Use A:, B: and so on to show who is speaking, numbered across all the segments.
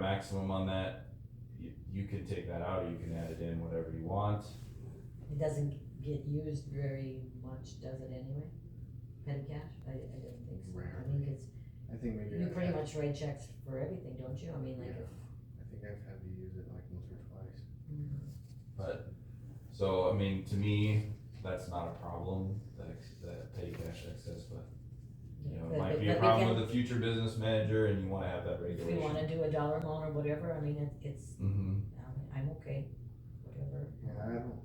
A: maximum on that. You, you can take that out, or you can add it in, whatever you want.
B: It doesn't get used very much, does it anyway? Petty cash? I, I don't think so. I
C: Rarely.
B: think it's,
C: I think maybe
B: you
C: I've
B: pretty
C: had,
B: much write checks for everything, don't you? I mean, like,
C: Yeah. I think I've had to use it like once or twice.
A: But, so, I mean, to me, that's not a problem, that, ex- that petty cash excess, but, you know,
B: But-
A: it might be
B: but
A: a
B: we
A: problem
B: can-
A: with the future business manager and you wanna have that
B: if we
A: regulation.
B: wanna do a dollar loan or whatever, I mean, it, it's,
A: Mm-hmm,
B: um, I'm okay, whatever.
C: Yeah, I don't,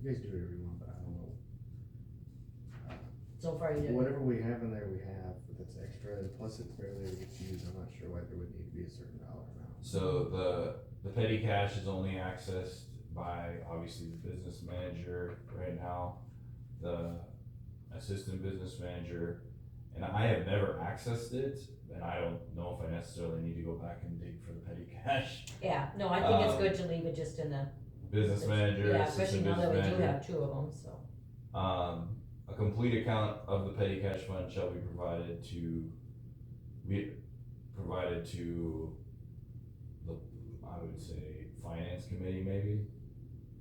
C: you guys do it every month, but I don't know. Uh,
B: So far, you don't,
C: Whatever we have in there, we have, but that's extra, and plus it barely gets used, I'm not sure why there would need to be a certain dollar amount.
A: so the, the petty cash is only accessed by, obviously, the business manager right now, the assistant business manager, and I have never accessed it, and I don't know if I necessarily need to go back and dig for the petty cash.
B: yeah, no, I think it's
A: Um,
B: good to leave it just in the.
A: Business manager,
B: Yeah,
A: assistant
B: especially now
A: business
B: that we
A: manager.
B: do have two of them, so.
A: Um, a complete account of the petty cash fund shall be provided to, we, provided to the, I would say, finance committee maybe?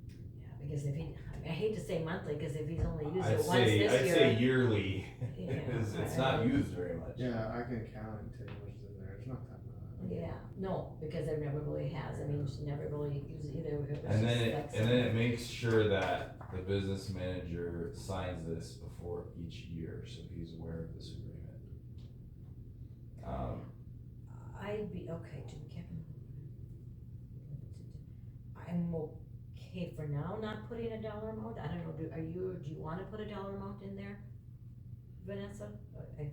B: Yeah, because if he, I hate to say monthly, cause if he's only used
A: I'd
B: it once
A: say, I'd
B: this year,
A: say yearly,
B: Yeah,
A: it's, it's
B: I-
A: not used very much.
C: Yeah, I can count and tell you what's in there, it's not that much.
B: Yeah, no, because it never really has, I mean, she never really used either. it was
A: And then,
B: just
A: it-
B: like
A: and then it
B: something-
A: makes sure that the business manager signs this before each year, so he's aware of this agreement. Um,
B: I'd be, okay, Jim Kevin. I'm okay for now not putting a dollar amount, I don't know, do, are you, do you wanna put a dollar amount in there? Vanessa? I-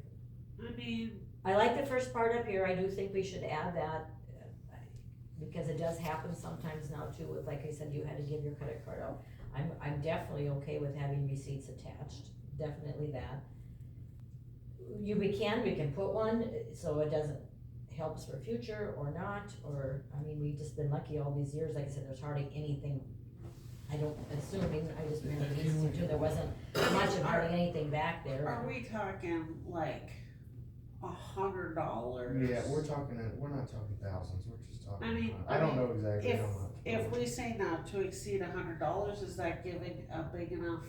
D: I mean,
B: I like the first part up here, I do think we should add that, uh, because it does happen sometimes now too, with, like I said, you had to give your credit card out. I'm, I'm definitely okay with having receipts attached, definitely that. You, we can, we can put one, uh, so it doesn't, helps for future or not, or, I mean, we've just been lucky all these years, like I said, there's hardly anything. I don't, assuming, I just remember these two, there wasn't much of hardly anything back there.
D: are we talking like a hundred dollars?
C: Yeah, we're talking, we're not talking thousands, we're just talking.
D: I mean,
C: about- I don't know exactly
D: If,
C: how much.
D: if we say not to exceed a hundred dollars, is that giving a big enough?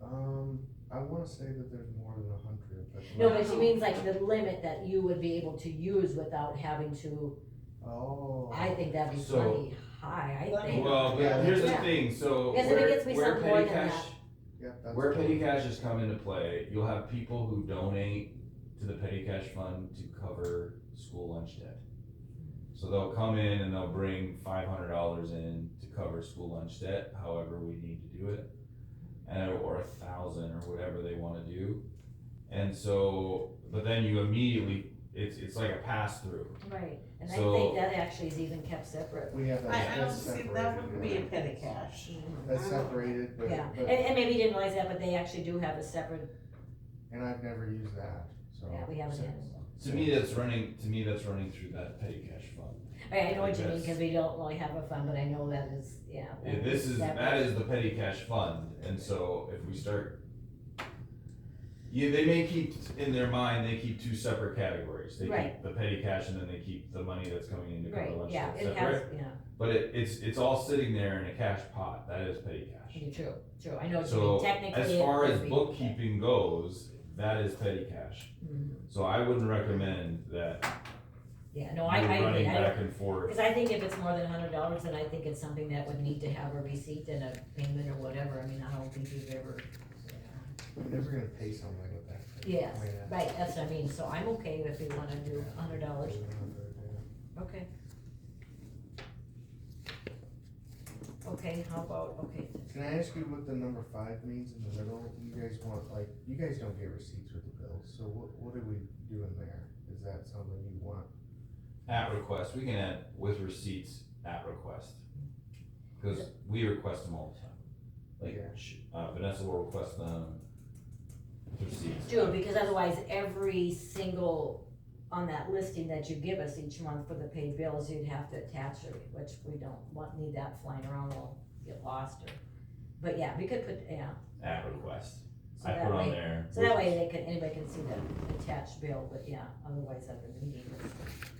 C: Um, I wanna say that there's more than a hundred, but.
B: No, but she means like the limit that you would be able to use without having to,
C: Oh.
B: I think that'd be
A: So-
B: plenty high, I think.
A: Well,
C: Yeah.
A: but here's the
B: Yeah.
A: thing, so
B: Yes, if it
A: where,
B: gets me
A: where
B: some
A: petty
B: point in
A: cash,
C: Yep, that's.
A: where petty
C: cool.
A: cash has come into play, you'll have people who donate to the petty cash fund to cover school lunch debt. So they'll come in and they'll bring five hundred dollars in to cover school lunch debt, however we need to do it. And, or a thousand or whatever they wanna do. And so, but then you immediately, it's, it's like a pass through.
B: Right, and I
A: So-
B: think that actually is even kept separate.
C: We have that.
D: I, I don't
C: that's
D: see, that
C: separated,
D: wouldn't be a
C: right?
D: petty cash.
C: That's separated, but,
B: Yeah, and,
C: but,
B: and maybe you didn't realize that, but they actually do have a separate,
C: and I've never used that, so.
B: yeah, we haven't
C: so-
B: had.
A: To me, that's running, to me, that's running through that petty cash fund.
B: I, I know what you mean,
A: Yes.
B: cause we don't really have a fund, but I know that is, yeah.
A: Yeah, this is,
B: separate.
A: that is the petty cash fund, and so if we start. Yeah, they may keep, in their mind, they keep two separate categories, they keep
B: Right.
A: the petty cash and then they keep the money that's coming in to cover
B: Right,
A: lunch
B: yeah,
A: debt
B: it has,
A: separate.
B: yeah,
A: But it, it's, it's all sitting there in a cash pot, that is petty cash.
B: you're true, true, I know what you
A: So,
B: mean, technically.
A: As
B: it
A: far
B: would
A: as
B: be-
A: bookkeeping goes, that is petty cash,
B: Mhm.
A: so I wouldn't recommend that
B: Yeah,
A: you're
B: no, Oh, I, I, agree.
A: running
B: I don't-
A: back and forth.
B: Cause I think if it's more than a hundred dollars, then I think it's something that would need to have a receipt and a payment or whatever, I mean, I don't think you've ever.
C: We're never gonna pay something like that.
B: Yes,
C: I mean, that's-
B: right, that's what I mean, so I'm okay if we wanna do a hundred dollars, okay. Okay, how about, okay,
C: Can I ask you what the number five means in the middle? You guys want, like, you guys don't get receipts with the bills, so what, what are we doing there? Is that something you want?
A: At request, we can add with receipts at request. Cause we request them all the time. Like,
C: Yeah.
A: sh- uh, Vanessa will request them with receipts.
B: June, because otherwise every single, on that listing that you give us each month for the paid bills, you'd have to attach it, which we don't want, need that flying around, we'll get lost or. But yeah, we could put, yeah,
A: At request.
B: so
A: I
B: that way.
A: put on there.
B: So that way they can, anybody can see the attached bill, but yeah, otherwise other meetings.